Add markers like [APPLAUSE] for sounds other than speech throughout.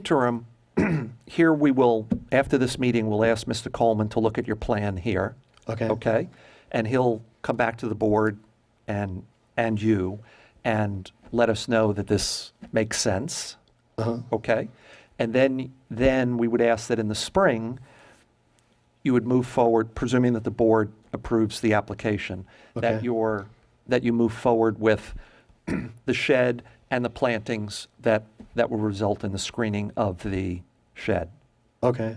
interim, [CLEARS THROAT] here we will, after this meeting, we'll ask Mr. Coleman to look at your plan here. Okay. Okay? And he'll come back to the board and, and you and let us know that this makes sense. Okay? And then, then we would ask that in the spring, you would move forward, presuming that the board approves the application, that Okay. your, that you move forward with [CLEARS THROAT] the shed and the plantings that, that will result in the screening of the shed. Okay.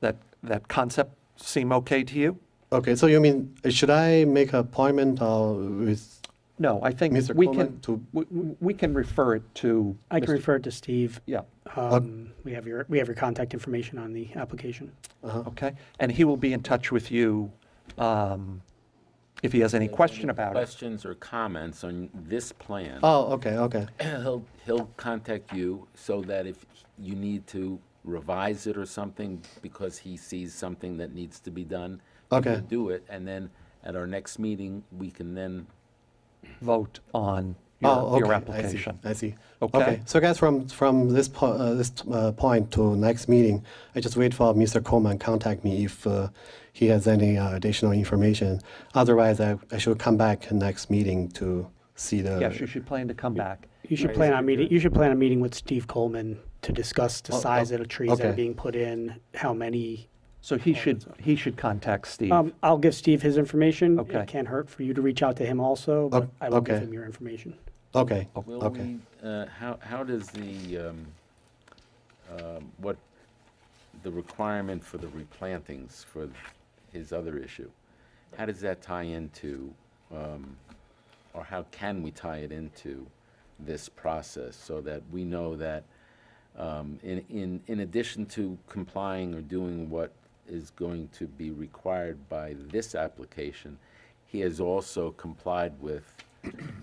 That, that concept seem okay to you? Okay. So you mean uh, should I make an appointment uh, with? No, I think Mr. we Coleman, can, to- we- we we can refer it to. I can Mr. refer it to Steve. Yeah, Um, We have your, we have your contact information on the application. Uh-huh. okay. And he will be in touch with you um, if he has any question about it. questions or comments on this plan, Oh, okay, okay, [CLEARS THROAT] he'll, he'll contact you so that if you need to revise it or something because he sees something that needs to be done, you Okay. can do it. And then at our next meeting, we can then, Vote on oh, your okay. your application. application. I see. Okay. So, guys, from from this po- uh, this uh, point to next meeting, I just wait for Mr. Coleman contact me if uh, he has any uh, additional information. Otherwise, I, I should come back next meeting to see the. Yes, you should plan to come back. You should plan on meeting, you should plan a meeting with Steve Coleman to discuss the size of the trees that are okay. being put in, how many. So he should, he should contact Steve. Um, I'll give Steve his information. Okay. It can't hurt for you to reach out to him also, but Ok- I will give okay. him your information. Okay. will okay. we, uh, how, how does the, um, um, what, the requirement for the replantings for his other issue, how does that tie into, um, or how can we tie it into this process so that we know that, um, in, in, in addition to complying or doing what is going to be required by this application, he has also complied with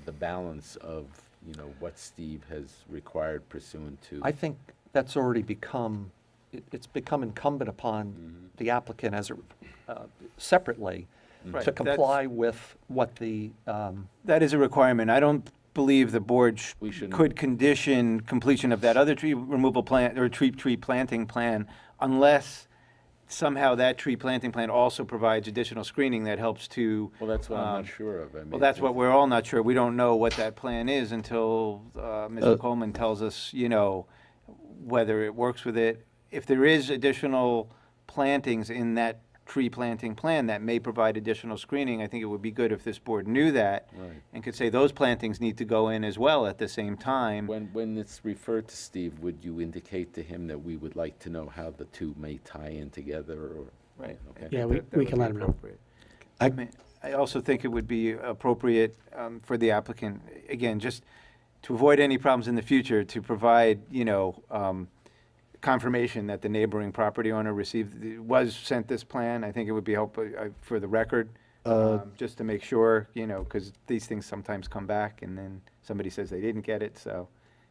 the balance of, you know, what Steve has required pursuant to. I think that's already become, it- it's become incumbent upon the applicant as, a- uh, separately, Right, to that's- comply with what the, um, That is a requirement. I don't believe the board sh- We shouldn't- could condition completion of that other tree removal plan, or tree, tree planting plan, unless somehow that tree planting plan also provides additional screening that helps to. Well, that's what I'm um, not sure of. I mean, Well, that's it's- what we're all not sure. We don't know what that plan is until uh, Uh, Mr. Coleman tells us, you know, whether it works with it. If there is additional plantings in that tree planting plan that may provide additional screening, I think it would be good if this board knew that Right. and could say those plantings need to go in as well at the same time. When, when it's referred to Steve, would you indicate to him that we would like to know how the two may tie in together or? Right. Okay. Yeah, we, we can let him know. I- I mean, I also think it would be appropriate um, for the applicant, again, just to avoid any problems in the future, to provide, you know, um, confirmation that the neighboring property owner received, the- was sent this plan. I think it would be helpful uh, for the record, Uh, um, just to make sure, you know, because these things sometimes come back and then somebody says they didn't get it, so.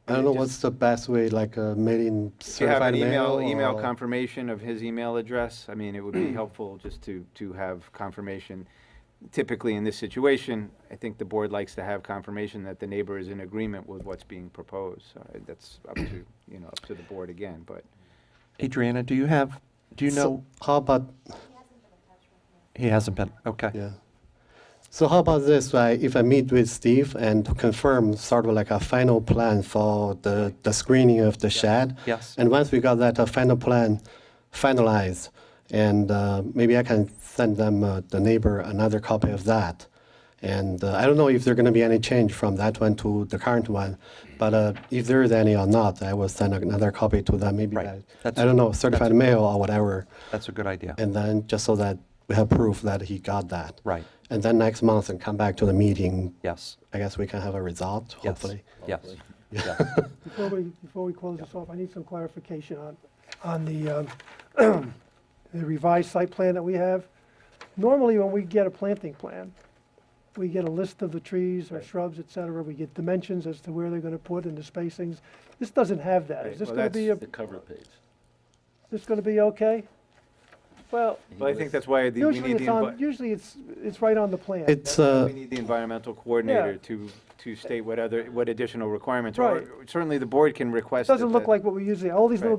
I don't know just- what's the best way, like a mailing Do you have certified an email, mail email or- confirmation of his email address? I mean, it would [CLEARS THROAT] be helpful just to, to have confirmation. Typically, in this situation, I think the board likes to have confirmation that the neighbor is in agreement with what's being proposed. So I- That's up to, you know, up to the board again, but. Adriana, do you have, do you So know, how about he hasn't been, okay. Yeah. So how about this, right? If I meet with Steve and to confirm sort of like a final plan for the, the screening of the shed? Yes. And once we got that uh, final plan finalized, and uh, maybe I can send them, uh, the neighbor, another copy of that. And uh, I don't know if there gonna be any change from that one to the current one, but uh, if there is any or not, I will send another copy to them, maybe Right. by, That's- I don't know, certified mail or whatever. That's a good idea. And then just so that we have proof that he got that. Right. And then next month and come back to the meeting, Yes, I guess we can have a result, yes, hopefully. yes. yeah. Before we, before we close this off, I need some clarification on, on the, um, the revised site plan that we have. Normally, when we get a planting plan, we get a list of the trees or shrubs, et cetera, we get dimensions as to where they're gonna put and the spacings. This doesn't have that. Right, Is this well, gonna be, a The cover page. this gonna be okay? Well, But I think that's why the- we usually need the, it's on, envi- usually it's, it's right on the plan. It's, uh, we need the environmental coordinator to, to state what other, what additional requirements. are. Right. Certainly, the board can request. Doesn't that look the- like what we usually, all these little Right.